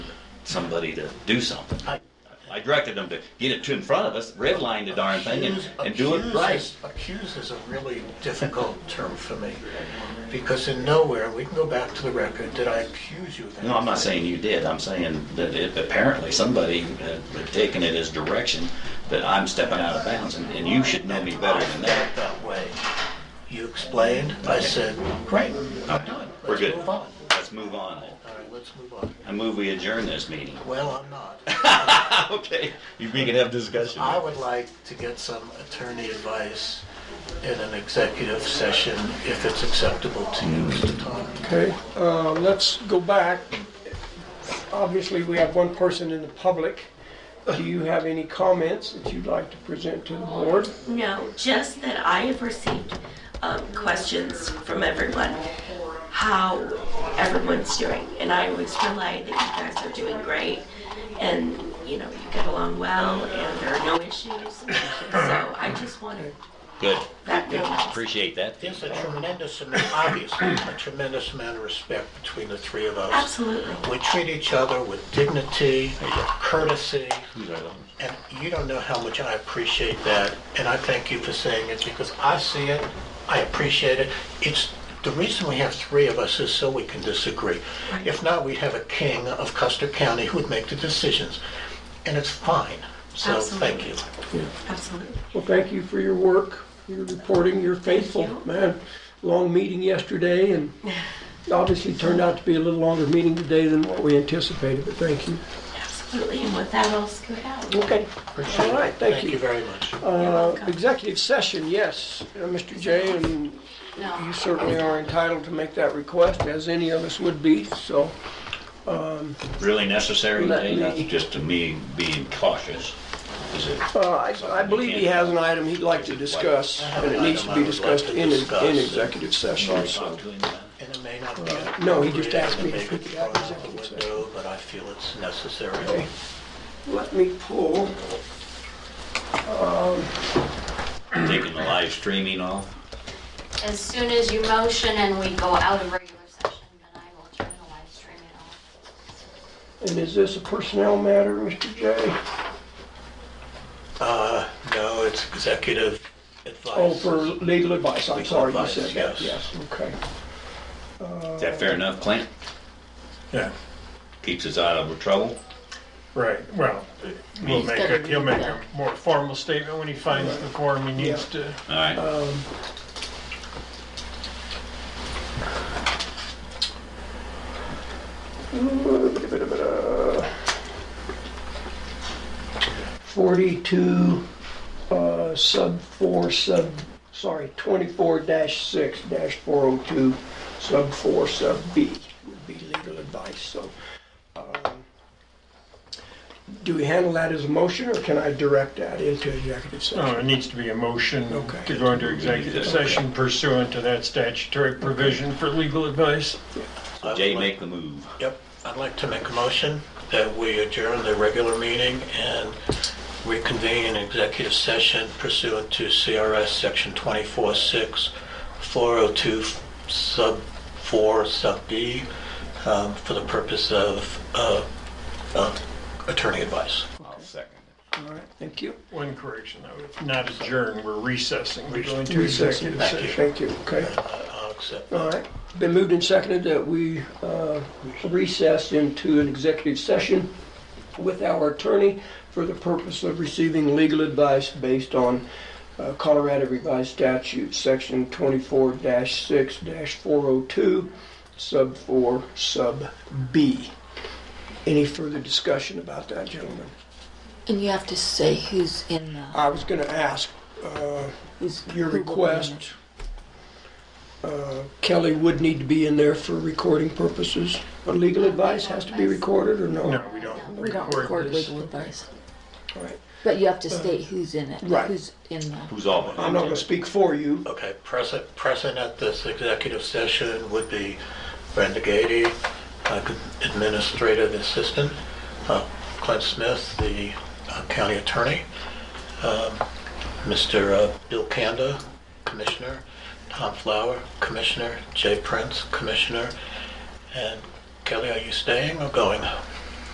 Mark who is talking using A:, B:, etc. A: somebody to do something. I- I directed them to get it to in front of us, redline the darn thing and,
B: Accuse-
A: and do it
B: accuse
A: right.
B: is- Accuse is a really difficult term for me, because in nowhere, we can go back to the record, did I accuse you of that?
A: No, I'm not saying you did. I'm saying that it, apparently somebody had taken it as direction that I'm stepping out of bounds and, and you should know me better than that.
B: felt that way. You explained, I said, great, I'm done.
A: We're good.
B: Let's
A: Let's
B: move on.
A: move on.
B: All right, let's move on.
A: I move we adjourn this meeting.
B: Well, I'm not.
A: Okay, you- we can have discussion.
B: I would like to get some attorney advice in an executive session, if it's acceptable to you, Mr. Todd.
C: Okay, uh, let's go back. Obviously, we have one person in the public. Do you have any comments that you'd like to present to the board?
D: No, just that I have received um, questions from everyone, how everyone's doing. And I always rely that you guys are doing great and, you know, you get along well and there are no issues. So I just wanted
A: Good,
D: that to
A: appreciate that.
B: There's a tremendous, amount- obviously, a tremendous amount of respect between the three of us.
D: Absolutely.
B: We treat each other with dignity, courtesy,
A: These are those.
B: and you don't know how much I appreciate that. And I thank you for saying it because I see it, I appreciate it. It's, the reason we have three of us is so we can disagree. If not, we'd have a king of Custer County who'd make the decisions. And it's fine. So thank you.
D: Absolutely.
C: Well, thank you for your work, your reporting, you're faithful, man. Long meeting yesterday and obviously turned out to be a little longer meeting today than what we anticipated, but thank you.
D: Absolutely. And with that, I'll scoot out.
C: Okay,
B: Appreciate
C: all
B: it.
C: right, thank
B: Thank you
C: you.
B: very much.
C: Uh, Executive session, yes, Uh, Mr. Jay, and you certainly are entitled to make that request, as any of us would be, so.
A: Really necessary,
C: Let
A: Jay? That's
C: me-
A: just to me being cautious, is it?
C: Uh, I I believe he has an item he'd like to discuss, and it needs to be discussed in, in executive session, so.
A: Talk to him about it.
B: And it may not be.
C: uh, no, he just asked me
B: appropriate,
C: if
B: and
C: we could have
B: maybe
C: executive
B: thrown out the window, But I feel it's necessary.
C: Okay. Let me pull,
A: Taking the live streaming off.
E: As soon as you motion and we go out of regular session, then I will turn the live streaming off.
C: and is this a personnel matter, Mr. Jay?
B: Uh, no, it's executive advice.
C: Oh, for legal advice, I'm
B: Legal
C: sorry, you
B: advice,
C: said that,
B: yes.
C: yes, okay.
A: Is that fair enough, Clint?
F: Yeah,
A: Keeps us out of trouble?
F: right, well, he'll make a, he'll make a more formal statement when he finds the form he needs to.
A: All right.
C: Forty-two, uh, sub four, sub, sorry, twenty-four dash six dash four oh two, sub four, sub B would be legal advice, so. um, Do we handle that as a motion, or can I direct that into executive
F: Oh, it
C: session?
F: needs to be a motion
C: Okay.
F: to go into executive session pursuant to that statutory provision for legal advice.
B: I would
A: Jay,
B: like-
A: make the move.
B: Yep, I'd like to make a motion that we adjourn the regular meeting and reconvene in executive session pursuant to CRS Section 24-6, 402 Sub 4 Sub B, um, for the purpose of uh, uh, attorney advice.
A: I'll second
C: All right, thank you.
F: One correction, though, not adjourn, we're recessing, we're going to
C: Recession.
F: executive session.
C: Thank you, okay.
B: I- I'll accept
C: All
B: that.
C: right, been moved and seconded that we uh, recess into an executive session with our attorney for the purpose of receiving legal advice based on uh, Colorado Revised Statute, Section 24-6-402, Sub 4, Sub B. Any further discussion about that, gentlemen?
G: And you have to say who's in the,
C: I was going to ask uh,
G: who's.
C: your
G: who will be in
C: request. Uh, Kelly would need to be in there for recording purposes, but legal advice has to be recorded or no?
F: No, we don't
G: it. We don't
F: record
G: record
F: this.
G: legal advice,
C: All right.
G: but you have to state who's in it,
C: right.
G: who's in the,
A: Who's all?
C: I'm not gonna speak for you.
B: Okay, present, present at this executive session would be Brenda Gady, uh, Administrative Assistant, uh, Clint Smith, the uh, County Attorney, um, Mr. uh, Bill Kanda, Commissioner, Tom Flower, Commissioner, Jay Prince, Commissioner, and Kelly, are you staying or going?